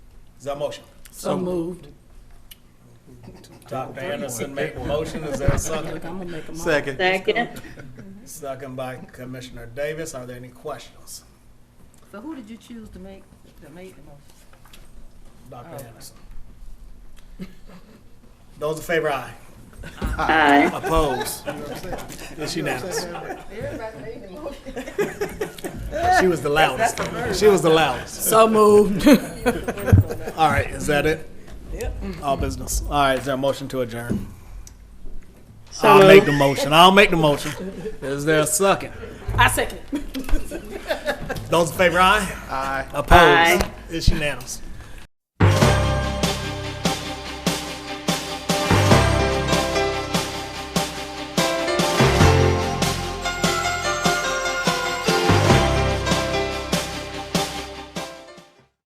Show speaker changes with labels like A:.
A: Is there a motion?
B: So moved.
A: Dr. Anderson made the motion. Is there a second?
B: I'm gonna make a motion.
C: Second.
D: Second.
A: Second by Commissioner Davis. Are there any questions?
E: So who did you choose to make, that made the motion? Oh.
A: Dr. Anderson. Those in favor, aye.
D: Aye.
A: Opposed? It's unanimous. She was the loudest. She was the loudest.
B: So moved.
A: All right, is that it? Yep. All business. All right, is there a motion to adjourn? I'll make the motion. I'll make the motion. Is there a second?
B: I second.
A: Those in favor, aye?
C: Aye.
A: Opposed?
D: Aye.
A: It's unanimous.